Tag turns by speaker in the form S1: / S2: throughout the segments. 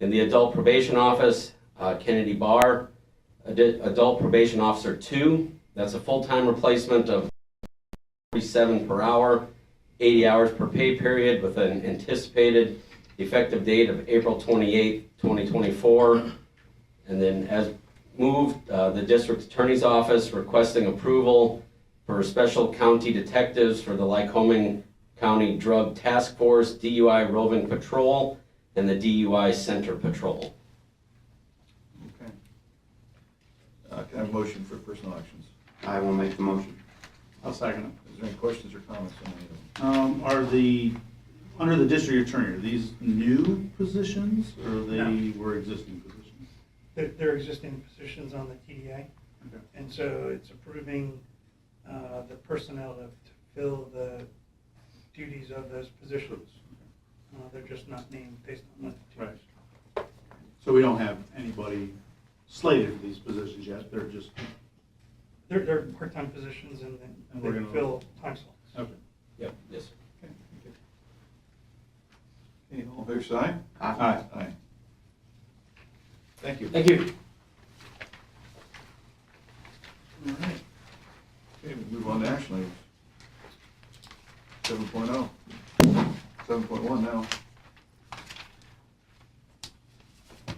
S1: In the Adult Probation Office, uh, Kennedy Barr, Ad- Adult Probation Officer 2, that's a full-time replacement of 47 per hour, 80 hours per pay period with an anticipated effective date of April 28, 2024. And then as moved, uh, the district attorney's office requesting approval for special county detectives for the Lycoming County Drug Task Force, DUI Roving Patrol, and the DUI Center Patrol.
S2: Okay. Uh, Can I have a motion for personal actions?
S3: I will make the motion.
S4: I'll second
S2: Is there any questions or comments on any of them?
S4: it. Um, Are the, under the district attorney, are these new positions or they were existing positions?
S5: their, their existing positions on the TDA.
S4: Okay.
S5: And so it's approving uh, the personnel to fill the duties of those positions. Uh, They're just not named based on what the
S4: Right.
S5: duties.
S4: So we don't have anybody slated for these positions yet, they're just,
S5: They're, they're part-time positions and
S4: And
S5: then
S4: we're
S5: they
S4: gonna-
S5: fill time slots.
S4: okay.
S1: Yep. Yes.
S4: Okay, thank you.
S2: Okay, all fair side?
S3: Aye.
S2: Aye. Thank you.
S1: Thank you.
S2: All right. Okay, we move on to action items. Seven point oh. Seven point one now.
S5: I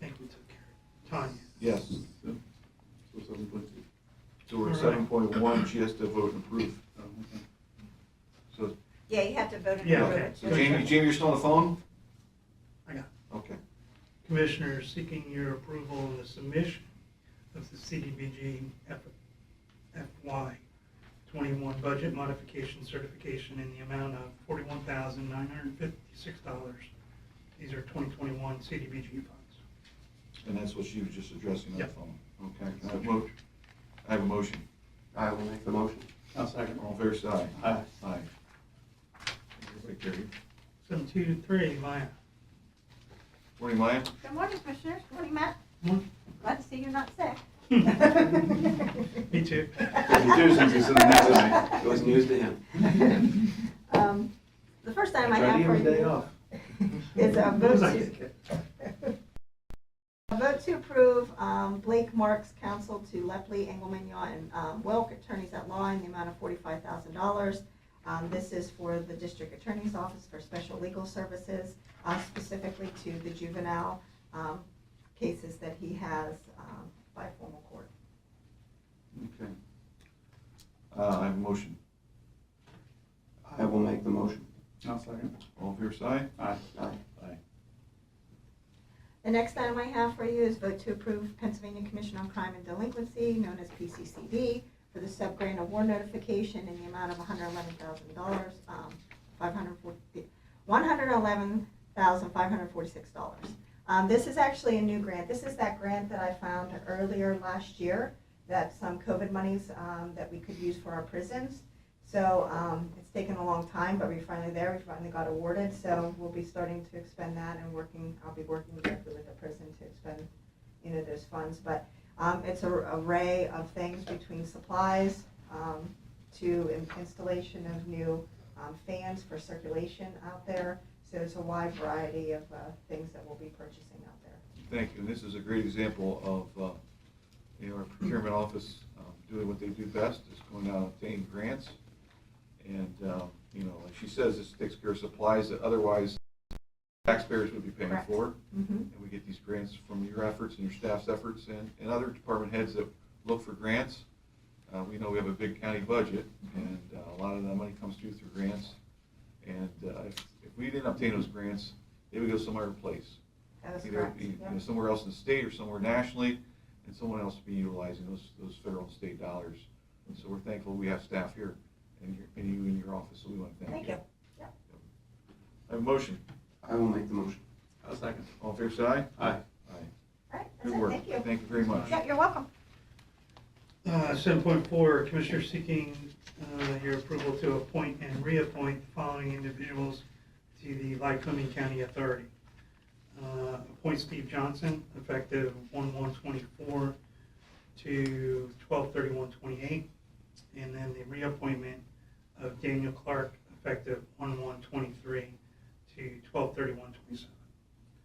S5: think we took care of Tanya.
S2: Yes. So seven point two. So we're at
S5: All right.
S2: seven point one, she has to vote and approve.
S4: Oh, okay.
S2: So,
S6: Yeah, you have to vote and
S5: Yeah,
S6: approve
S5: okay.
S6: it.
S2: so Jamie, Jamie, you're still on the phone?
S5: I got
S2: Okay.
S5: Commissioner seeking your approval on the submission of the CDBG F- FY 21 budget modification certification in the amount of $41,956. These are 2021 CDBG funds.
S2: And that's what she was just addressing on the
S5: Yep.
S2: phone. Okay, can I have a mo, I have a motion.
S3: I will make the motion.
S4: I'll second
S2: All fair side?
S4: Aye.
S2: Aye. Everybody carried.
S5: Seven, two, to three, Maya.
S2: Morning, Maya.
S6: Good morning, Commissioners. Good morning, Matt.
S5: Morning.
S6: Glad to see you're not sick.
S5: Me too.
S2: Me too, since he's sitting next to me.
S3: It was news to him.
S6: Um, The first item I
S3: Try to
S6: have
S3: give
S6: for
S3: him a day
S6: you
S3: off.
S6: is a vote to,
S5: Second.
S6: a vote to approve um, Blake Marks Counsel to Lepley, Engelmann, Yaw, and um, Welk Attorneys at Law in the amount of $45,000. Um, This is for the District Attorney's Office for special legal services, uh, specifically to the juvenile um, cases that he has um, by formal court.
S2: Okay. Uh, I have a motion.
S3: I will make the motion.
S4: I'll second.
S2: All fair side?
S4: Aye.
S3: Aye.
S4: Aye.
S6: The next item I have for you is vote to approve Pennsylvania Commission on Crime and Delinquency, known as PCCD, for the sub-grant award notification in the amount of $111,000, um, 540 $111,546. Um, This is actually a new grant. This is that grant that I found earlier last year, that some COVID monies um, that we could use for our prisons. So um, it's taken a long time, but we finally there, we finally got awarded, so we'll be starting to expend that and working, I'll be working directly with the prison to expend, you know, those funds. But um, it's a array of things between supplies um, to in- installation of new um, fans for circulation out there. So it's a wide variety of uh, things that we'll be purchasing out there.
S2: Thank you. And this is a great example of, uh, you know, our procurement office um, doing what they do best, is going out and obtaining grants. And, um, you know, like she says, this takes care of supplies that otherwise taxpayers would be paying
S6: Correct.
S2: for.
S6: Mhm.
S2: And we get these grants from your efforts and your staff's efforts and, and other department heads that look for grants. Uh, we know we have a big county budget and uh, a lot of that money comes through through grants. And, uh, if, if we didn't obtain those grants, they would go somewhere place.
S6: That was
S2: Either
S6: correct.
S2: be, you
S6: Yep.
S2: know, somewhere else in the state or somewhere nationally, and someone else be utilizing those, those federal and state dollars. And so we're thankful we have staff here and your, and you in your office, so we want to thank
S6: Thank
S2: you.
S6: you. Yep.
S2: I have a motion.
S3: I will make the motion.
S4: I'll second.
S2: All fair side?
S4: Aye.
S2: Aye.
S6: All right, that's
S2: Good
S6: it,
S2: work.
S6: thank you.
S2: Thank you very much.
S6: Yeah, you're welcome.
S5: Uh, 7.4, Commissioner seeking uh, your approval to appoint and reappoint the following individuals to the Lycoming County Authority. Uh, Appoint Steve Johnson, effective 1/1/24 to 12/31/28. And then the reappointment of Daniel Clark, effective 1/1/23 to 12/31/27.